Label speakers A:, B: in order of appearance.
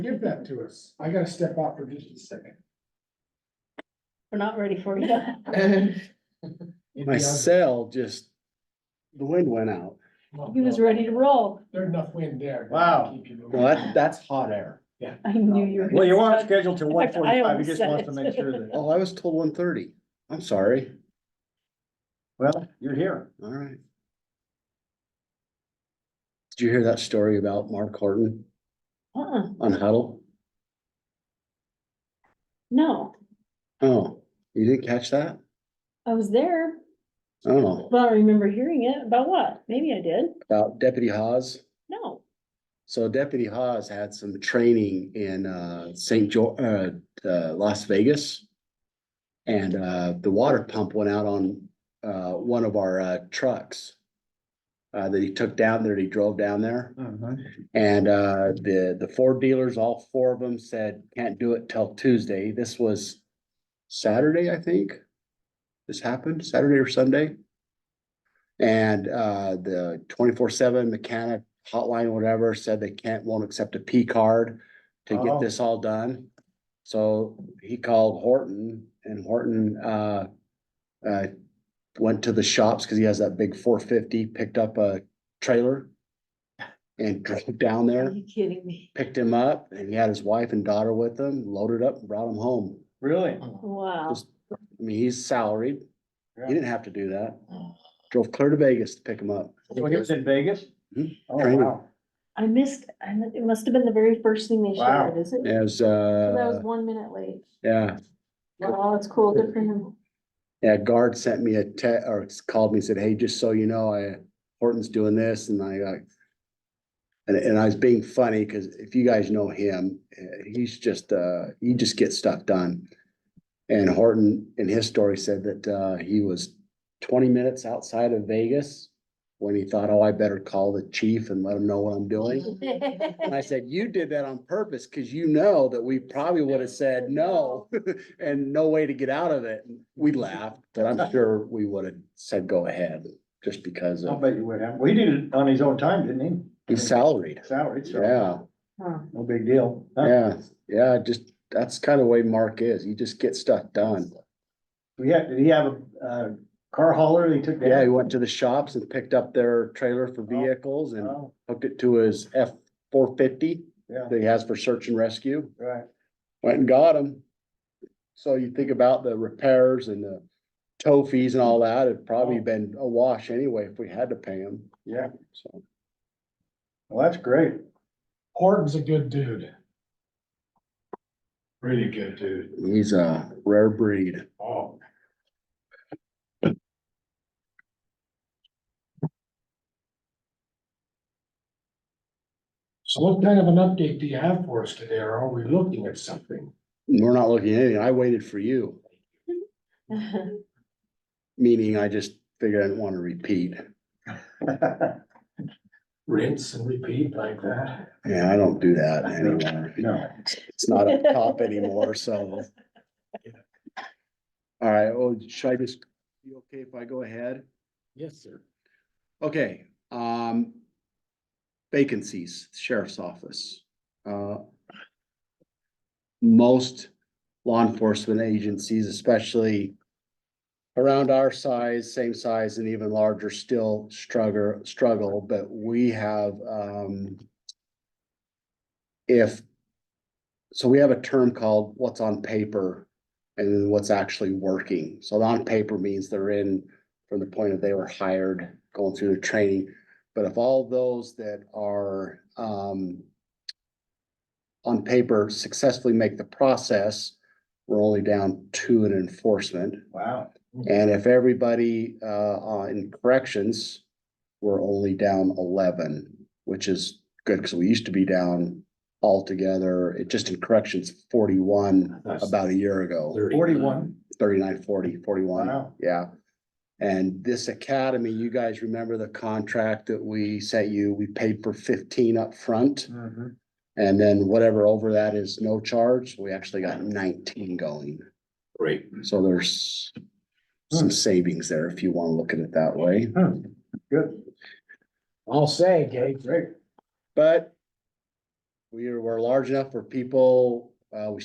A: Give that to us. I gotta step out for just a second.
B: We're not ready for you.
C: My cell just, the wind went out.
A: Well,
B: He was
A: no,
B: ready to roll.
A: There's enough wind there. to
D: Wow.
A: keep you moving.
C: Well, that, that's hot air.
B: I knew you were.
D: Well, you
B: gonna
D: are
B: start.
D: scheduled to one
B: fact, I
D: forty-five, he
B: almost
D: just
B: said
D: wants to
B: it.
D: make sure that,
C: Oh, I was told one thirty. I'm sorry.
D: well, you're here.
C: All right. Did you hear that story about Mark Horton
B: Uh-uh,
C: on Huddle?
B: no,
C: Oh, you didn't catch that?
B: I was there,
C: Oh,
B: but I don't remember hearing it. About what? Maybe I did.
C: about Deputy Hawes?
B: No.
C: So Deputy Hawes had some training in uh St. George, uh, uh, Las Vegas. And uh, the water pump went out on uh, one of our uh, trucks. Uh, that he took down there, he drove down there.
D: Uh-huh.
C: And uh, the, the Ford dealers, all four of them said, can't do it till Tuesday. This was Saturday, I think. This happened Saturday or Sunday. And uh, the twenty-four seven mechanic hotline, whatever, said they can't, won't accept a P card to
D: Oh.
C: get this all done. So he called Horton and Horton uh, uh, went to the shops because he has that big four fifty, picked up a trailer and drove down
B: Are
C: there
B: you kidding me?
C: picked him up and he had his wife and daughter with him, loaded up, and brought him home.
D: Really?
B: Wow.
C: Just, I mean, he's salaried.
D: Yeah.
C: He didn't have to do that. Drove clear to Vegas to pick him up.
D: When he was in Vegas?
C: Hmm.
D: Oh,
C: Training.
D: wow.
B: I missed, I mi- it must have been the very first thing they
D: Wow.
B: shared, is it?
C: As,
B: So That was
C: uh,
B: one minute late.
C: yeah,
B: Wow, it's cool. Good for him.
C: yeah, guard sent me a te- or called me, and said, hey, just so you know, I, Horton's doing this and I, uh, and, and I was being funny because if you guys know him, uh, he's just, uh, he just gets stuff done. And Horton in his story said that, uh, he was twenty minutes outside of Vegas when he thought, oh, I better call the chief and let him know what I'm doing. And I said, you did that on purpose because you know that we probably would have said no and no way to get out of it. We laughed, but I'm sure we would have said, go ahead, just because
D: I'll
C: of,
D: bet you would have. Well, he did it on his own time, didn't he?
C: he's salaried.
D: Salary, so.
C: Yeah,
B: Huh.
D: No big deal. Huh.
C: yeah, yeah, just, that's kind of the way Mark is. He just gets stuff done.
D: We had, did he have a, uh, car hauler that he took
C: Yeah, he
D: down?
C: went to the shops and picked up their trailer for vehicles
A: Uh-huh.
C: and
D: Oh,
C: hooked it to his F four fifty
D: yeah,
C: that he has for search and rescue.
D: right.
C: went and got them. So you think about the repairs and the tow fees and all that, it'd probably been a wash anyway if we had to pay them,
D: Yeah.
C: so.
D: Well, that's great.
A: Horton's a good dude. Really good dude.
C: He's a rare breed.
A: Oh. So what kind of an update do you have for us today? Or are we looking at something?
C: We're not looking at anything, I waited for you, meaning I just figured I didn't want to repeat.
A: Rinse and repeat like that?
C: Yeah, I don't do that anymore.
D: No.
C: It's not up top anymore, so. All right, well, should I just, be okay if I go ahead?
A: Yes, sir.
C: Okay, um. Vacancies, sheriff's office, uh. Most law enforcement agencies, especially. Around our size, same size and even larger, still struggle, struggle, but we have, um. If. So we have a term called what's on paper and then what's actually working. So on paper means they're in from the point of they were hired, going through their training. But of all those that are um on paper successfully make the process, we're only down two in enforcement.
D: Wow.
C: And if everybody uh on- in corrections, we're only down eleven, which is good because we used to be down altogether, it just in corrections forty-one about a year ago.
D: Forty-one.
C: 39, 40, 41.
D: Wow.
C: yeah. And this academy, you guys remember the contract that we sent you, we paid for fifteen up front,
D: Mhm.
C: And then whatever over that is no charge, we actually got nineteen going.
A: Great.
C: So there's some savings there if you want to look at it that way.
D: Hmm. Good,
A: I'll say, Gabe.
D: great.
C: But we were large enough for people, uh, we